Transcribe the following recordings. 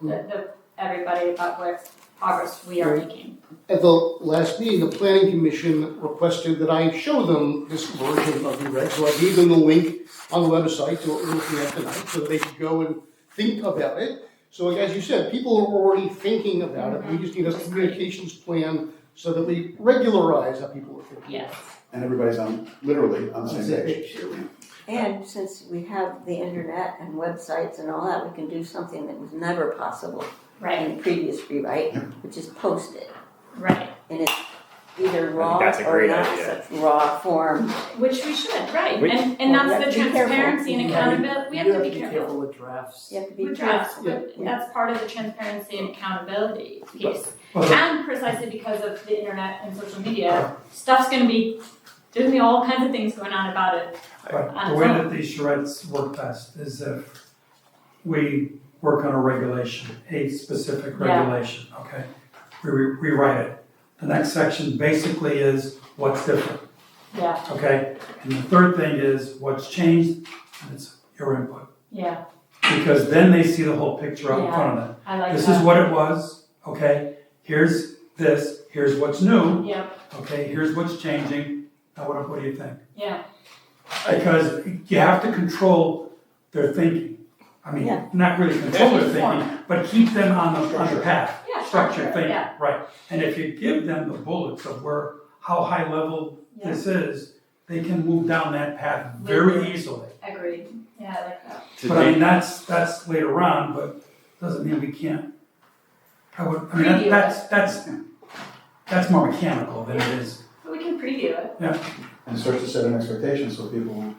the, the, everybody about what progress we are making. At the last meeting, the planning commission requested that I show them this version of the reg, so I gave them the link on the website to what we're looking at tonight, so that they could go and think about it. So like, as you said, people are already thinking about it, we just need a communications plan so that we regularize how people are thinking. Yes. and everybody's on, literally on the same page. And since we have the internet and websites and all that, we can do something that was never possible Right. in previous rewrite, which is post it Right. in its either raw that's a or great not idea. such raw form. Which we should. Right. We- and and Well, that's the we have to be careful. transparency and accountability. We have to be careful. with drafts. You have to be With drafts, careful. but that's part of the transparency and accountability piece. But- And precisely because of the internet and social media, stuff's gonna be, there's gonna be all kinds of things going on about it. Right, the way that these charrettes work best is if we work on a regulation, a specific Yeah. regulation, okay? We re- rewrite it. The next section basically is what's different, Yeah, okay? And the third thing is what's changed, and it's your input. yeah, Because then they see the whole picture out in front of them. I like that. This is what it was, okay? Here's this, here's what's new, Yeah, okay? Here's what's changing. Now what, what do you think? yeah, Because you have to control their thinking. I mean, Yeah. not really control their Keep them thinking, but keep them on the, on the path. yeah, Structured sure, thinking, yeah, right. And if you give them the bullets of where, how high level yeah, this is, they can move down that path very easily. agreed, yeah, I like that. To But I date- mean, that's, that's later on, but doesn't mean we can't. I would, I mean, Preview it. that- that's, that's, that's more mechanical than it is. But we can preview it, And start to set an expectation so people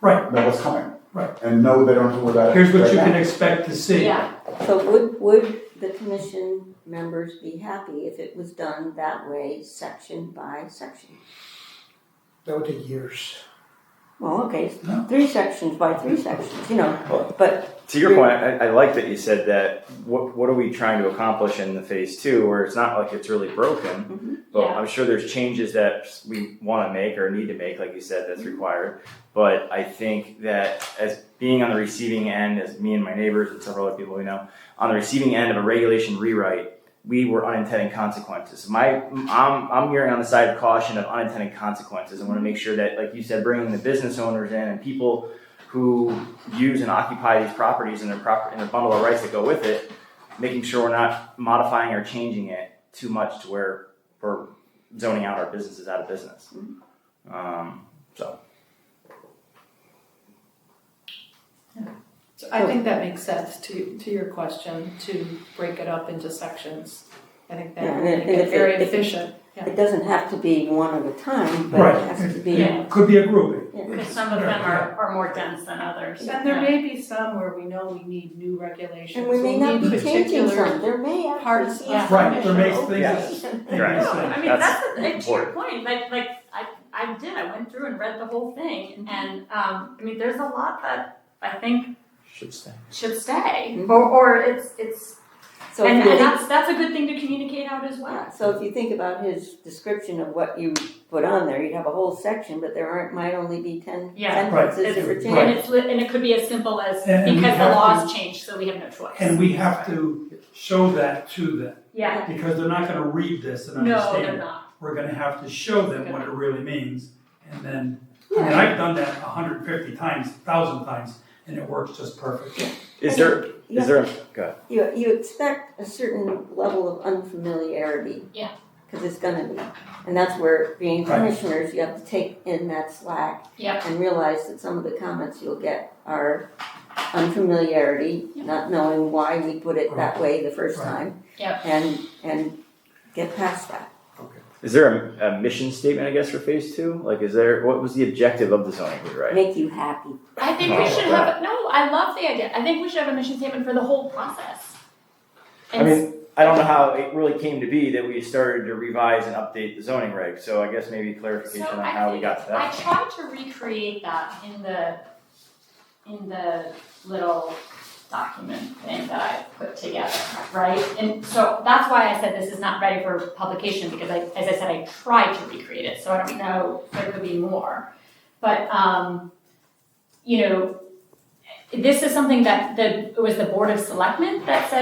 Right. know what's coming. Right. And know they don't have to worry about it. Here's what you right can now. expect to see. yeah, So would, would the commission members be happy if it was done that way, section by section? That would take years. Well, okay, No. three sections by three sections, you know, but To your point, I, I like that you said that. What what are we trying to accomplish in the phase two, where it's not like it's really broken, Mm-hmm. but Yeah. I'm sure there's changes that we want to make or need to make, like you said, Mm-hmm. that's required. But I think that as being on the receiving end, as me and my neighbors and several other people we know, on the receiving end of a regulation rewrite, we were unintended consequences. My I'm I'm hearing on the side of caution of unintended consequences. I want to make sure that, like you said, bringing the business owners in and people who use and occupy these properties and their proper and their bundle of rights that go with it, making sure we're not modifying or changing it too much to where we're zoning out our businesses out of business. Um, so So I think that makes sense to, to your question, to break it up into sections. I think Yeah, that and would if- make it if it- very if it- efficient. it doesn't have to be one at a time, but Right. it has to be. Yeah. Could be a grouping. Yeah. because some of them are, are more dense than others. And there may be some where we know we need new regulations. And we may we'll not need be changing particular- some, there may parts actually be. of- Right, there may some things Yeah. that- that- Maybe Right. No, so. I mean, That's that's, and to your important. point, like, like, I, I did, I went through and read the whole thing, and, um, I mean, there's a lot that I think should stay. should stay, Mhm. or, or it's, it's, So and, if you and think, that's, that's a good thing to communicate out as well. yeah, so if you think about his description of what you put on there, you'd have a whole section, but there aren't, might only be ten Yeah. Right. sentences for And change. it's, li- and it could be as simple as, And- and we because the have to- laws changed, so we have no choice. And we have to show that to them, Yeah, because they're not gonna read this and no, they're understand it. not, We're gonna have to show them what it really means, and then, I mean, I've done that hundred and fifty times, thousand times, and it works just perfectly. Is there Yeah. is there go ahead. You, you expect a certain level of unfamiliarity. Yeah. Cause it's gonna be, and that's where being Right. commissioners, you have to take in that slack. Yeah. And realize that some of the comments you'll get are unfamiliarity, Yeah. not knowing why we put it that way the first Right. time. Yeah. And, and get past that. is there a, a mission statement I guess for phase two? Like, is there what was the objective of the zoning rewrite? make you happy. I think we should have, no, I love the idea, I think we should have a mission statement for the whole process. I And mean, I don't know how it really came to be that we started to revise and update the zoning reg. So I guess maybe clarification So on I how we think- got to that. I tried to recreate that in the, in the little document thing that I put together, right? And so that's why I said this is not ready for publication, because I, as I said, I tried to recreate it, so I don't know if there could be more. But, um, you know, this is something that the, it was the Board of Selectmen that said